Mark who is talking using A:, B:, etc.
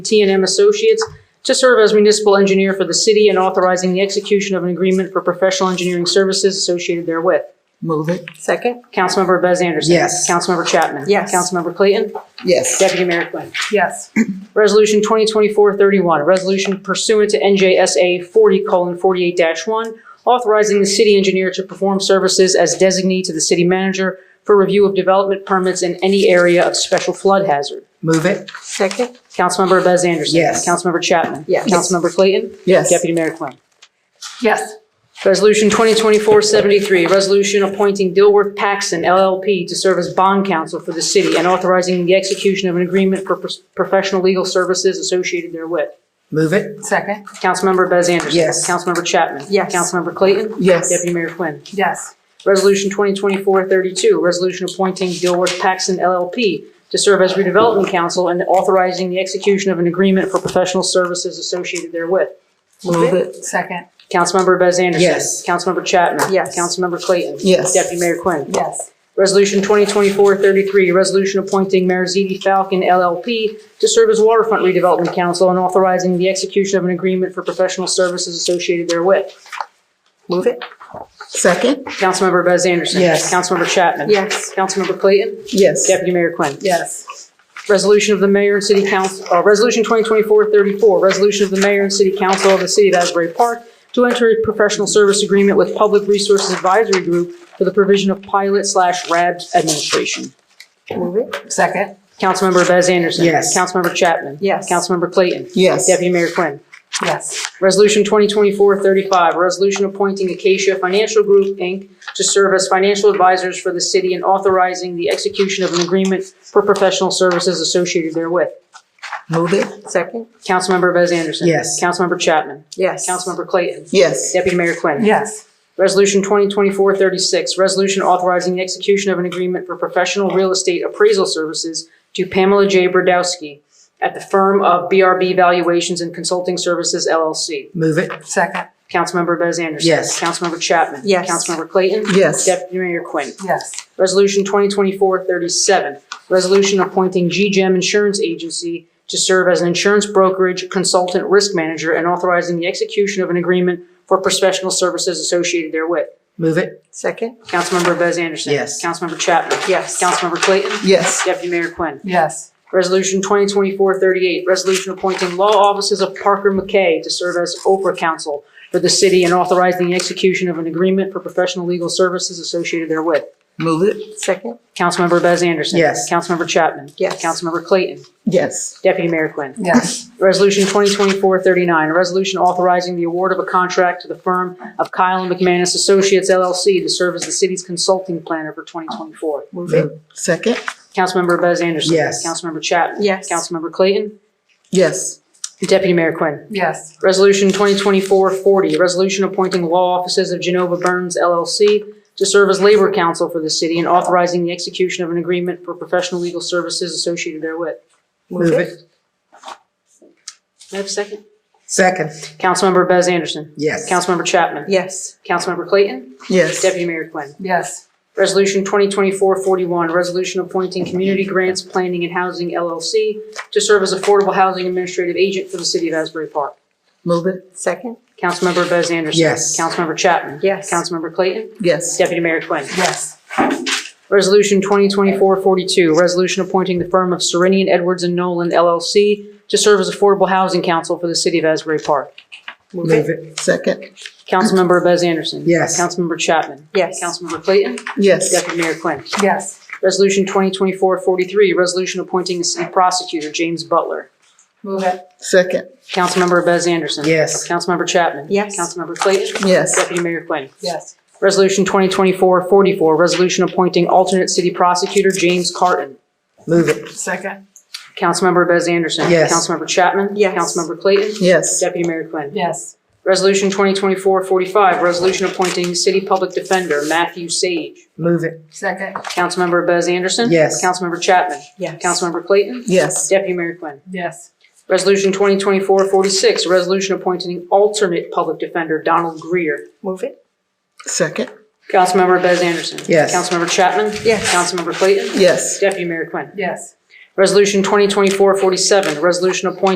A: t and M Associates to serve as municipal engineer for the city and authorizing the execution of an agreement for professional engineering services associated therewith.
B: Move it.
C: Second?
A: Councilmember Bez Anderson.
B: Yes.
A: Councilmember Chapman.
C: Yes.
A: Councilmember Clayton.
B: Yes.
A: Deputy Mayor Quinn.
C: Yes.
A: Resolution 2024-31, a resolution pursuant to NJSA 40:48-1, authorizing the city engineer to perform services as designee to the city manager for review of development permits in any area of special flood hazard.
B: Move it.
C: Second?
A: Councilmember Bez Anderson.
B: Yes.
A: Councilmember Chapman.
C: Yes.
A: Councilmember Clayton.
B: Yes.
A: Deputy Mayor Quinn.
C: Yes.
A: Resolution 2024-73, resolution appointing Dilworth Paxson LLP to serve as bond counsel for the city and authorizing the execution of an agreement for pros- professional legal services associated therewith.
B: Move it.
C: Second?
A: Councilmember Bez Anderson.
B: Yes.
A: Councilmember Chapman.
C: Yes.
A: Councilmember Clayton.
B: Yes.
A: Deputy Mayor Quinn.
C: Yes.
A: Resolution 2024-32, resolution appointing Dilworth Paxson LLP to serve as redevelopment counsel and authorizing the execution of an agreement for professional services associated therewith.
B: Move it.
C: Second?
A: Councilmember Bez Anderson.
B: Yes.
A: Councilmember Chapman.
C: Yes.
A: Councilmember Clayton.
B: Yes.
A: Deputy Mayor Quinn.
C: Yes.
A: Resolution 2024-33, resolution appointing Marizidi Falcon LLP to serve as waterfront redevelopment council and authorizing the execution of an agreement for professional services associated therewith.
C: Move it?
B: Second.
A: Councilmember Bez Anderson.
B: Yes.
A: Councilmember Chapman.
C: Yes.
A: Councilmember Clayton.
B: Yes.
A: Deputy Mayor Quinn.
C: Yes.
A: Resolution of the Mayor and City Council, uh, Resolution 2024-34, Resolution of the Mayor and City Council of the City of Asbury Park to enter a professional service agreement with Public Resources Advisory Group for the provision of pilot slash RAB administration.
C: Move it? Second?
A: Councilmember Bez Anderson.
B: Yes.
A: Councilmember Chapman.
C: Yes.
A: Councilmember Clayton.
B: Yes.
A: Deputy Mayor Quinn.
C: Yes.
A: Resolution 2024-35, a resolution appointing Acacia Financial Group, Inc. to serve as financial advisors for the city and authorizing the execution of an agreement for professional services associated therewith.
B: Move it.
C: Second?
A: Councilmember Bez Anderson.
B: Yes.
A: Councilmember Chapman.
C: Yes.
A: Councilmember Clayton.
B: Yes.
A: Deputy Mayor Quinn.
C: Yes.
A: Resolution 2024-36, resolution authorizing the execution of an agreement for professional real estate appraisal services to Pamela J. Brodowski at the firm of BRB Valuations and Consulting Services LLC.
B: Move it.
C: Second?
A: Councilmember Bez Anderson.
B: Yes.
A: Councilmember Chapman.
C: Yes.
A: Councilmember Clayton.
B: Yes.
A: Deputy Mayor Quinn.
C: Yes.
A: Resolution 2024-37, resolution appointing G-Gem Insurance Agency to serve as an insurance brokerage consultant risk manager and authorizing the execution of an agreement for professional services associated therewith.
B: Move it.
C: Second?
A: Councilmember Bez Anderson.
B: Yes.
A: Councilmember Chapman.
C: Yes.
A: Councilmember Clayton.
B: Yes.
A: Deputy Mayor Quinn.
C: Yes.
A: Resolution 2024-38, resolution appointing law offices of Parker McKay to serve as Oprah counsel for the city and authorizing the execution of an agreement for professional legal services associated therewith.
B: Move it.
C: Second?
A: Councilmember Bez Anderson.
B: Yes.
A: Councilmember Chapman.
C: Yes.
A: Councilmember Clayton.
B: Yes.
A: Deputy Mayor Quinn.
C: Yes.
A: Resolution 2024-39, a resolution authorizing the award of a contract to the firm of Kyle and McManus Associates LLC to serve as the city's consulting planner for 2024.
C: Move it?
B: Move. Second.
A: Councilmember Bez Anderson.
B: Yes.
A: Councilmember Chapman.
C: Yes.
A: Councilmember Clayton.
B: Yes.
A: Deputy Mayor Quinn.
C: Yes.
A: Resolution 2024-40, resolution appointing law offices of Genova Burns LLC to serve as labor counsel for the city and authorizing the execution of an agreement for professional legal services associated therewith.
B: Move it.
A: May I have a second?
B: Second.
A: Councilmember Bez Anderson.
B: Yes.
A: Councilmember Chapman.
C: Yes.
A: Councilmember Clayton.
B: Yes.
A: Deputy Mayor Quinn.
C: Yes.
A: Resolution 2024-41, resolution appointing Community Grants Planning and Housing LLC to serve as affordable housing administrative agent for the city of Asbury Park.
B: Move it.
C: Second?
A: Councilmember Bez Anderson.
B: Yes.
A: Councilmember Chapman.
C: Yes.
A: Councilmember Clayton.
B: Yes.
A: Deputy Mayor Quinn.
C: Yes.
A: Resolution 2024-42, resolution appointing the firm of Serenian Edwards and Nolan LLC to serve as affordable housing counsel for the city of Asbury Park.
B: Move it. Second.
A: Councilmember Bez Anderson.
B: Yes.
A: Councilmember Chapman.
C: Yes.
A: Councilmember Clayton.
B: Yes.
A: Deputy Mayor Quinn.
C: Yes.
A: Resolution 2024-43, resolution appointing the city prosecutor, James Butler.
C: Move it?
B: Second.
A: Councilmember Bez Anderson.
B: Yes.
A: Councilmember Chapman.
C: Yes.
A: Councilmember Clayton.
B: Yes.
A: Deputy Mayor Quinn.
C: Yes.
A: Resolution 2024-44, resolution appointing alternate city prosecutor, James Carton.
B: Move it.
C: Second?
A: Councilmember Bez Anderson.
B: Yes.
A: Councilmember Chapman.
C: Yes.
A: Councilmember Clayton.
B: Yes.
A: Deputy Mayor Quinn.
C: Yes.
A: Resolution 2024-45, resolution appointing city public defender Matthew Sage.
B: Move it.
C: Second?
A: Councilmember Bez Anderson.
B: Yes.
A: Councilmember Chapman.
C: Yes.
A: Councilmember Clayton.
B: Yes.
A: Deputy Mayor Quinn.
C: Yes.
A: Resolution 2024-46, resolution appointing alternate public defender Donald Greer.
C: Move it?
B: Second.
A: Councilmember Bez Anderson.
B: Yes.
A: Councilmember Chapman.
C: Yes.
A: Councilmember Clayton.
B: Yes.
A: Deputy Mayor Quinn.
C: Yes.
A: Resolution 2024-47, resolution appointing